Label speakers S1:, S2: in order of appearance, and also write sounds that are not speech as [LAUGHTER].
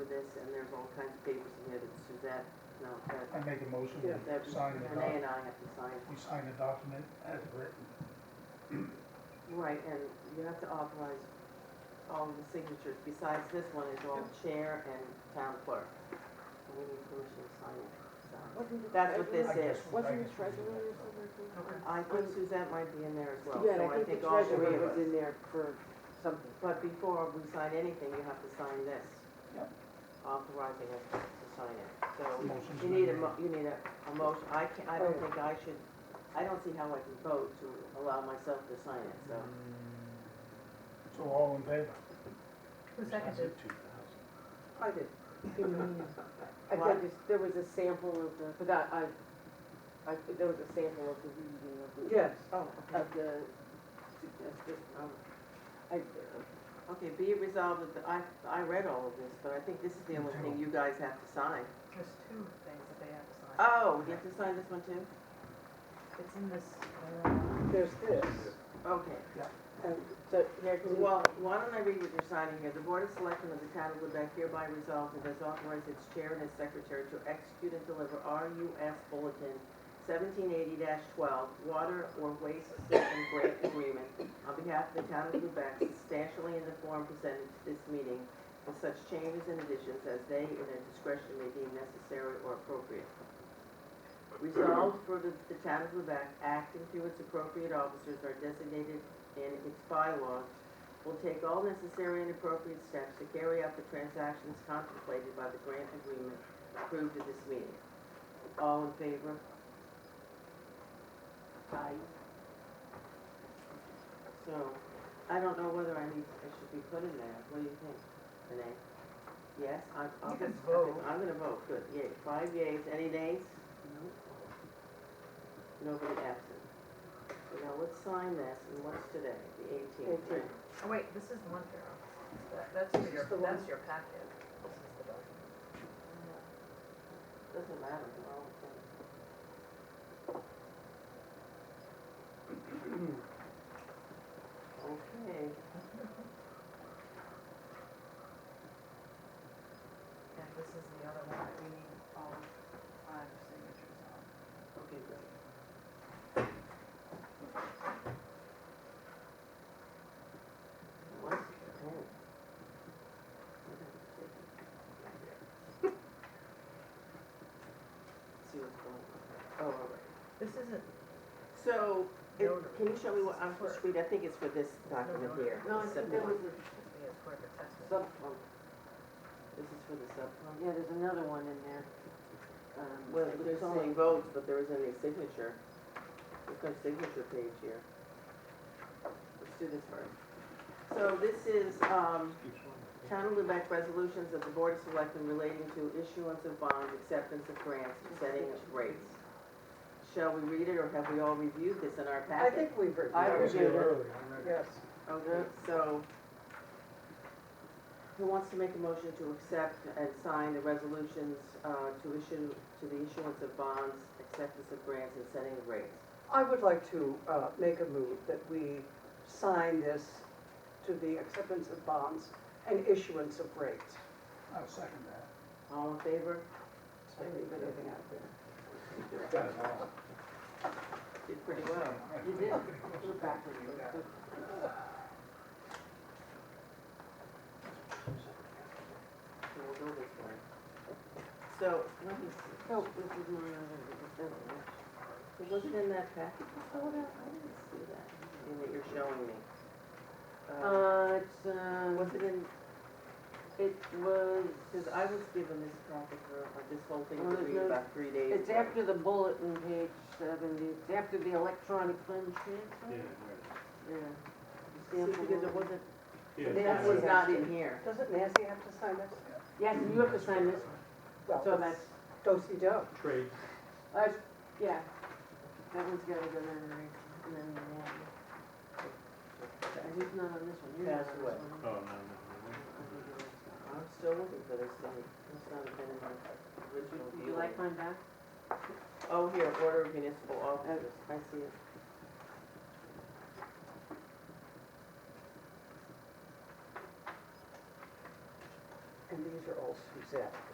S1: there's all kinds of papers in here that Suzette, no,
S2: I
S1: that,
S2: make a motion
S1: that
S2: to sign the
S1: Renee
S2: doc,
S1: and I have to sign.
S2: we sign the document as written.
S1: Right, and you have to authorize all of the signatures, besides this one is all chair and town clerk. And we need permission to sign it, so.
S3: Wasn't it
S1: That's what this
S2: I
S3: treasurer?
S2: guess-
S1: is.
S2: I
S3: Wasn't it
S2: guess we do
S3: treasurer or
S2: that.
S3: something?
S1: I think Suzette might be in there as well, so
S3: Yeah, I
S1: I
S3: think
S1: think
S3: the
S1: all three
S3: treasurer
S1: of
S3: was in
S1: us.
S3: there for something.
S1: But before we sign anything, you have to sign this.
S2: Yep.
S1: Authorizing us to sign it, so.
S2: Motion's
S1: You need a,
S2: been
S1: mo- you need a, a motion, I can I don't
S3: Oh.
S1: think I should, I don't see how I can vote to allow myself to sign it, so.
S2: Mm-hmm. So all in favor?
S4: Who seconded?
S3: I did. I
S1: What?
S3: think there was a sample of the, but I, I, I, there was a sample of the reading of the.
S5: Yes.
S1: Oh,
S3: Of the, that's just, um, I,
S1: Okay, be it resolved that, the- I, I read all of this, but I think this is the only thing you guys have to sign.
S4: There's two things that they have to sign.
S1: Oh, you have to sign this one too?
S4: It's in this, uh,
S3: there's this.
S1: Okay.
S3: And so here's.
S1: Well, why don't I read what you're signing here? The Board of Selectmen of the Town of Lubec hereby resolves and does authorize its chair and its secretary to execute and deliver RUS Bulletin seventeen eighty twelve, Water or Waste System Grant Agreement on behalf of the Town of Lubec substantially in the form presented to this meeting with such changes and additions as they in their discretion may deem necessary or appropriate. Resolved further that the Town of Lubec, acting through its appropriate officers, are designated in its bylaws will take all necessary and appropriate steps to carry out the transactions contemplated by the grant agreement approved at this meeting. All in favor? Aye. So, I don't know whether I need, I should be put in there, what do you think, Renee? Yes, I, I'll
S4: You
S1: just,
S4: can vote.
S1: I'm gonna vote, good, yay, five yays, any nays? Nobody absent. So Now, let's sign this, and what's today, the eighteenth, right?
S3: Eighteenth.
S4: oh wait, this is one Carol. That- That's for your,
S3: the one-
S4: that's your packet. This is the document.
S1: Doesn't matter, they're all the same. Okay,
S4: And this is the other one that we need all five signatures on.
S1: okay, great. What's, oh. [LAUGHS] See what's going on. Oh, all right.
S4: This isn't,
S1: So, it-
S4: Notary.
S1: can you show me what, I'm supposed to read, I think it's for this document here.
S3: No, I
S1: the
S3: think there
S1: subcon.
S3: was a
S4: it's for the test.
S3: subfund.
S1: This is for the subcon.
S3: Yeah, there's another one in there. Um,
S1: Well,
S3: with
S1: there's
S3: the
S1: only
S3: same-
S1: votes, but there isn't any signature. There's no signature page here. Let's do this first. So this is, um, Town of Lubec resolutions of the Board of Selectmen relating to issuance of bonds, acceptance of grants, and setting of rates. Shall we read it, or have we all reviewed this in our
S5: I
S1: packet?
S5: think we've written.
S3: I
S2: That was
S3: reviewed
S2: here
S3: it.
S2: earlier, I read it.
S5: Yes.
S1: Okay, so who wants to make a motion to accept and sign the resolutions uh, to issue, to the issuance of bonds, acceptance of grants, and setting of rates?
S5: I would like to uh, make a move that we sign this to the acceptance of bonds and issuance of rates.
S2: I'll second that.
S1: All in favor?
S5: So we leave anything out there.
S2: Got it all.
S1: Did pretty
S2: [LAUGHS]
S1: well. You did. Look back at you. So we'll go this way. So, let me see. Oh, this is my, this doesn't match. It wasn't in that package before that? I didn't see that. In that you're showing me. Uh,
S3: Uh, it's, uh.
S1: Was it in,
S3: It was,
S1: because I was given this packet for, uh, this whole thing to
S3: Well, there's
S1: read
S3: no-
S1: about three days ago.
S3: it's after the bulletin, page seventy, it's after the electronic fund transfer. Yeah.
S1: See, because it wasn't, that
S3: Nancy
S1: was
S3: has
S1: not
S3: to-
S1: in here.
S5: Doesn't Nancy have to sign this?
S3: Yes, and you have to sign this,
S5: Well,
S3: so that's,
S5: Do-si-do.
S6: Trade,
S3: that's, Uh, yeah. That one's gotta go there, right? and then, yeah. And he's not on this one, you're not
S1: That's
S3: on
S1: what-
S3: this one.
S6: oh, no, no,
S1: I'm still looking for this thing. It's not been in my original
S3: Would
S1: view.
S3: you like mine back?
S1: Oh, here, order of municipal officers. I see it.
S5: And these are all Suzette.